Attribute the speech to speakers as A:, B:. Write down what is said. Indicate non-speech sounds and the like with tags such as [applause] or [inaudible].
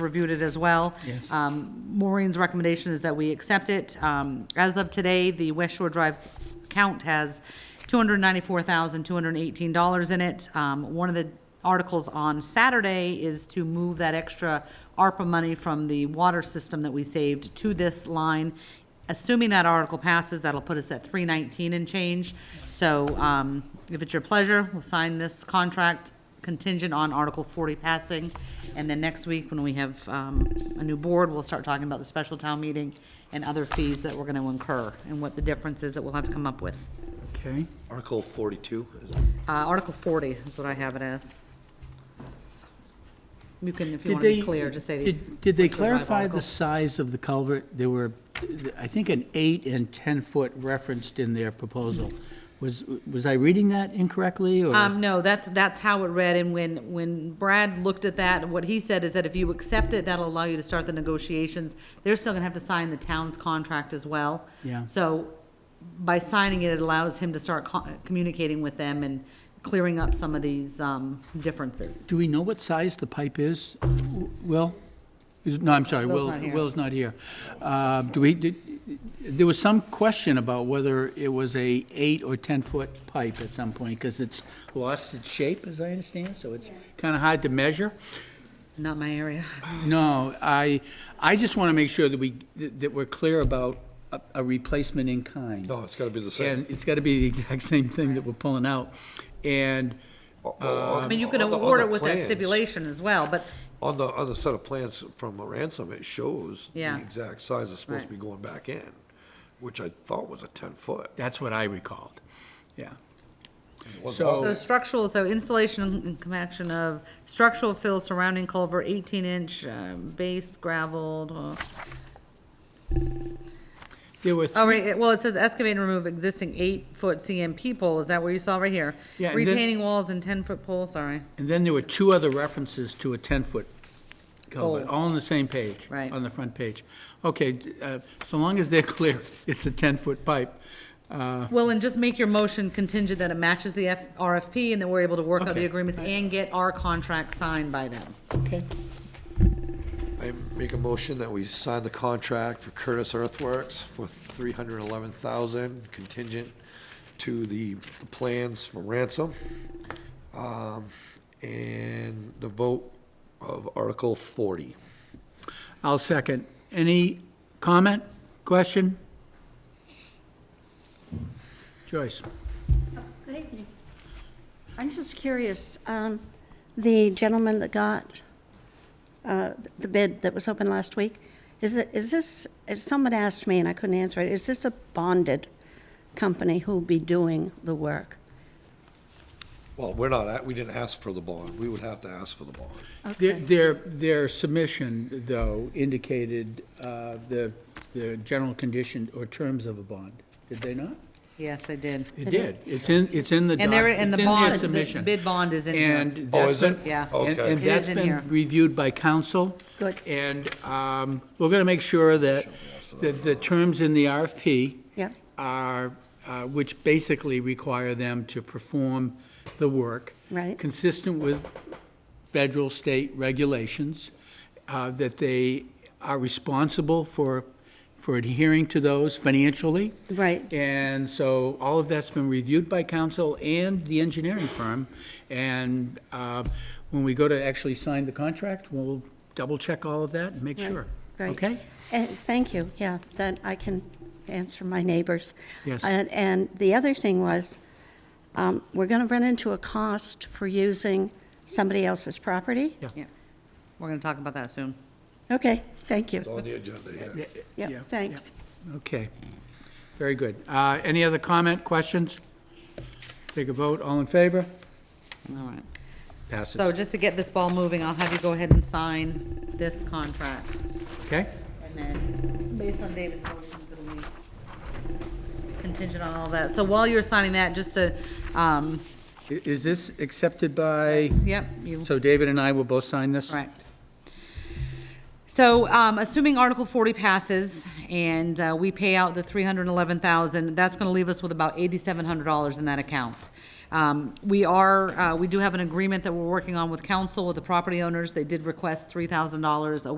A: reviewed it as well. Yes. Maureen's recommendation is that we accept it. Um, As of today, the West Shore Drive count has $294,218 in it. Um, One of the articles on Saturday is to move that extra ARPA money from the water system that we saved to this line. Assuming that article passes, that'll put us at 319 and change. So um, if it's your pleasure, we'll sign this contract contingent on Article 40 passing. And then next week, when we have um, a new board, we'll start talking about the special town meeting and other fees that we're going to incur and what the difference is that we'll have to come up with.
B: Okay,
C: Article 42, is it?
A: Uh, Article 40 is what I have it as. You can, if you
B: Did
A: want to be
B: they-
A: clear, just say. the-
B: Did did they
A: what's the right
B: clarify
A: article.
B: the size of the culvert? There were, I think, an eight and 10-foot referenced in their proposal. Was, was I reading that incorrectly, or?
A: Um, no, that's, that's how it read, and when, when Brad looked at that, what he said is that if you accept it, that'll allow you to start the negotiations. They're still gonna have to sign the town's contract as well.
B: Yeah.
A: So by signing it, it allows him to start co- communicating with them and clearing up some of these, um, differences.
B: Do we know what size the pipe is? W- Will? Is- No, I'm sorry,
A: Will's
B: Will,
A: not here.
B: Will's not here. Uh, Do we, did- there was some question about whether it was a eight or 10-foot pipe at some point, because it's lost its shape, as I understand, so it's kind of hard to measure.
A: Not my area.
B: No, I, I just want to make sure that we, that we're clear about a- a replacement in kind.
C: No, it's got to be the same.
B: And it's got to be the exact [laughs] same thing that we're pulling out. And, um,
A: I mean, you can award it with that stipulation as well, but
C: On the, on the set of plans from ransom, it shows the
A: Yeah.
C: exact size it's supposed to be
A: Right.
C: going back in, which I thought was a 10-foot.
B: That's what I recalled, yeah.
A: So
C: Oh.
B: So,
A: structural, so installation and compaction of structural fill surrounding culvert, eighteen inch, um, base gravelled, uh,
B: there were,
A: Oh, right, it- well, it says excavate and remove existing eight-foot CMP pole, is that what you saw right here?
B: Yeah, and then-
A: Retaining walls and ten-foot pole, sorry,
B: and then there were two other references to a 10-foot culvert,
A: Oh.
B: all on the same page.
A: Right.
B: On the front page. Okay, d- uh, so long as they're [laughs] clear, it's a 10-foot pipe.
A: well, and just make your motion contingent that it matches the F- RFP, and that we're able to work out the
B: Okay.
A: agreements and get our contract signed by them.
B: Okay.
C: I make a motion that we sign the contract for Curtis Earthworks for 311,000 contingent to the plans from ransom. um, And the vote of Article 40.
B: I'll second. Any comment, question? Joyce?
D: Good evening. I'm just curious, um, the gentleman that got uh, the bid that was open last week, is it, is this, if someone asked me and I couldn't answer it, is this a bonded company who'll be doing the work?
C: Well, we're not, at- we didn't ask for the bond. We would have to ask for the bond.
B: Their- Their, their submission, though, indicated uh, the, the general condition or terms of a bond, did they not?
A: Yes, they did.
B: It did. It's in, it's in the doc,
A: And there, and the
B: it's in their
A: bond, the
B: submission.
A: bid bond is in here.
B: And
C: Oh,
B: that's
C: is it?
B: been-
A: Yeah.
B: And
C: Okay.
B: and
A: It
B: that's
A: is in here.
B: been reviewed by council.
D: Good.
B: And um, we're going to make sure that, that the terms in the RFP
D: Yeah.
B: are, uh, which basically require them to perform the work.
D: Right.
B: Consistent with federal, state regulations, uh, that they are responsible for, for adhering to those financially.
D: Right.
B: And so all of that's been reviewed by council and the engineering firm. And uh, when we go to actually sign the contract, we'll double-check all of that and make
D: Right,
B: sure.
D: right.
B: Okay?
D: And Eh, thank you, yeah, that I can answer my neighbors.
B: Yes.
D: And, and the other thing was, um, we're gonna run into a cost for using somebody else's property?
B: Yeah.
A: Yeah. We're gonna talk about that soon.
D: Okay, thank you.
C: It's on the agenda, yeah.
D: Yeah, thanks.
B: Okay, very good. Uh, Any other comment, questions? Take a vote, all in favor?
A: All right. So
B: Passes.
A: just to get this ball moving, I'll have you go ahead and sign this contract.
B: Okay,
A: And then, based on David's motions, it'll be contingent on all that. So while you're signing that, just to, um,
B: I- is this accepted by,
A: yep, you,
B: so David and I will both sign this?
A: correct. So, um, assuming Article forty passes and, uh, we pay out the three hundred and eleven thousand, that's gonna leave us with about eighty-seven hundred dollars in that account. Um, We are, uh, we do have an agreement that we're working on with council, with the property owners. They did request $3,000 a week.